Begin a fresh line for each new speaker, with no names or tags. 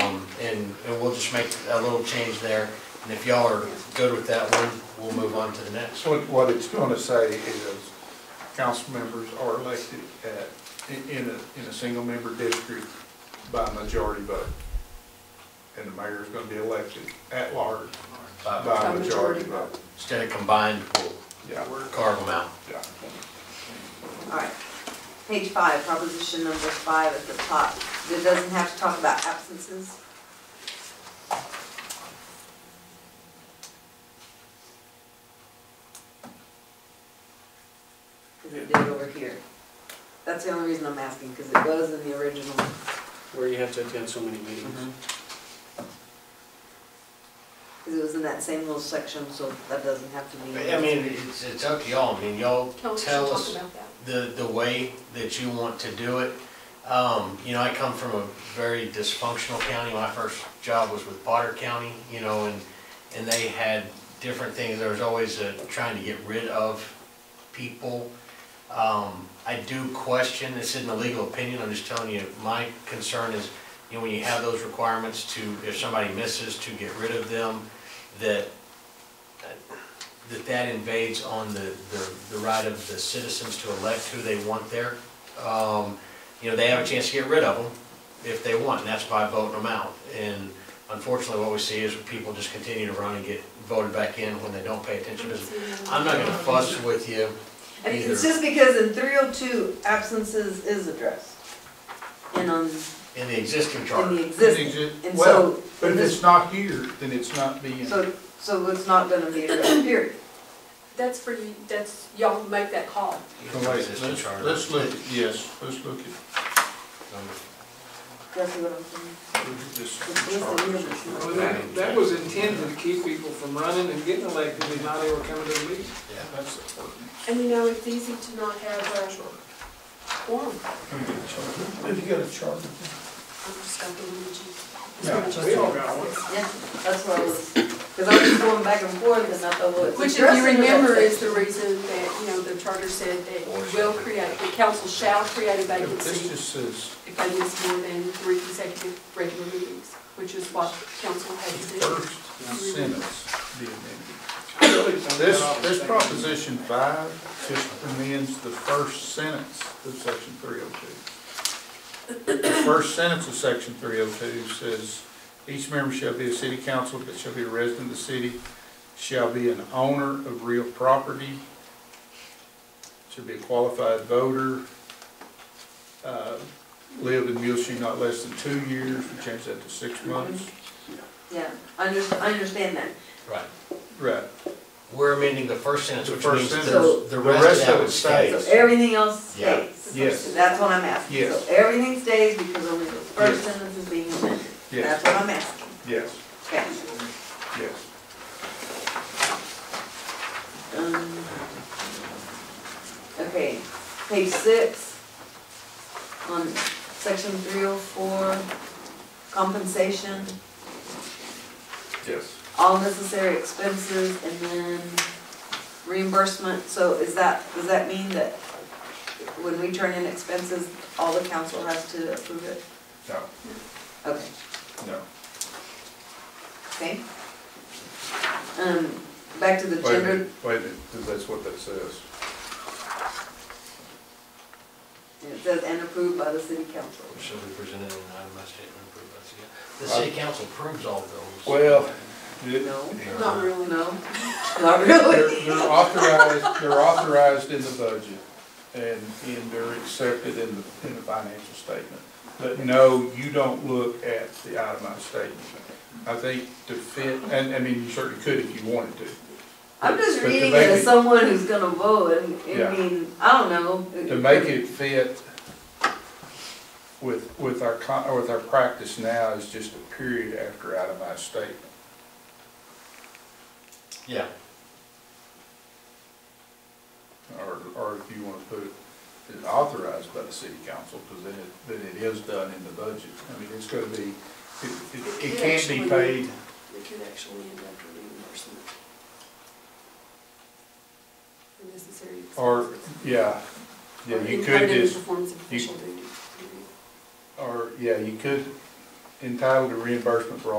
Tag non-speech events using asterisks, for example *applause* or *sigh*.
Um, and, and we'll just make a little change there. And if y'all are good with that one, we'll move on to the next.
So what it's gonna say is, council members are elected at, in- in a, in a single-member district by majority vote. And the mayor is gonna be elected at large
Uh,
by
By
majority
majority
vote.
Instead of combined, we'll
Yeah,
carve them out.
yeah.
All right. Page five, proposition number five at the top. It doesn't have to talk about absences. Because it did over here. That's the only reason I'm asking, because it was in the original.
where you have to attend so many meetings.
Mm-hmm.
Because it was in that same little section, so that doesn't have to be.
I mean, it's, it's up to y'all, I mean, y'all
Tell us,
tell
talk
us
about that.
the, the way that you want to do it. Um, you know, I come from a very dysfunctional county, my first job was with Potter County, you know, and, and they had different things, there was always a, trying to get rid of people. Um, I do question, this isn't a legal opinion, I'm just telling you, my concern is, you know, when you have those requirements to, if somebody misses, to get rid of them, that, that that invades on the, the, the right of the citizens to elect who they want there. Um, you know, they have a chance to get rid of them if they want, and that's by voting them out. And unfortunately, what we see is people just continue to run and get voted back in when they don't pay attention. I'm not gonna fuss with you
I mean, it's
either
just because in three oh two, absences is addressed. And on,
in the existing
in
charter.
the existing, and
Well,
so,
but if it's not here, then it's not being,
so, so it's not gonna be addressed, period.
That's for you, that's, y'all make that call.
so let's, let's- let's look, at- yes, let's look at
That's what I'm saying.
this
It's listed here, but it's
Well,
not.
that, that was intended to keep people from running and getting elected, and now they were coming to the meeting.
That's the ordinance.
And you know, it's easy to not have a form.
If you got a charter.
I'm just gonna
Yeah.
believe
We all got one.
Yeah, that's what I was, cause I was just going back and forth and I thought, well, it's
Which if
addressed
you
in that
remember is
section.
the reason that, you know, the charter said that you will create, the council shall create a
This
vacancy
just says
if they miss more than three consecutive regular meetings, which is what council had to do.
first sentence be amended.
I really don't get
This,
all the
this
things.
proposition five just amends the first sentence of section three oh two. The first sentence of section three oh two says, each member shall be a city council, but shall be a resident of the city, shall be an owner of real property, should be a qualified voter, uh, live in Muleshoe not less than two years, we changed that to six months.
Yeah, I under, I understand that.
Right.
Right,
We're amending the first sentence,
The
which
first
means
sentence.
the, the
The
rest of that would
So
stay.
Yes.
everything else
Yeah.
stays.
Yes.
That's what I'm asking.
Yes.
So everything stays because only the first
Yes.
sentence is being amended.
yes,
That's what I'm asking.
yes,
Okay.
yes.
Um, Okay, page six, on section three oh four, compensation,
Yes.
all necessary expenses, and then reimbursement, so is that, does that mean that when we turn in expenses, all the council has to approve it?
No,
Okay,
no.
okay. Um, back to the
Wait a
gender.
minute, wait a minute, 'cause that's what that says.
And It says, and approved by the city council.
So we presented an itemized statement approved by the city. The city council approves all those.
Well, they're,
No?
They're-
Not really, no.
No? *laughs* Not really?
they're authorized, they're authorized in the budget and, and they're accepted in the, in the financial statement. But no, you don't look at the itemized statement. I think to fit, and, I mean, you certainly could if you wanted to.
I'm just
But to
reading it
make
as
it-
someone who's gonna vote, and,
Yeah.
I mean, I don't know.
To make it fit with, with our, con- with our practice now is just a period after itemized statement.
Yeah,
Or, or if you wanna put it, it's authorized by the city council, cause then it, then it is done in the budget. I mean, it's gonna be, it, it, it can't be paid,
It could actually end up to reimbursement. The Necessary.
or,
expenses.
yeah, yeah,
Or
you
incurred
could
in the
just,
Performance of
you-
official duties.
or, yeah, you could, entitled to reimbursement for all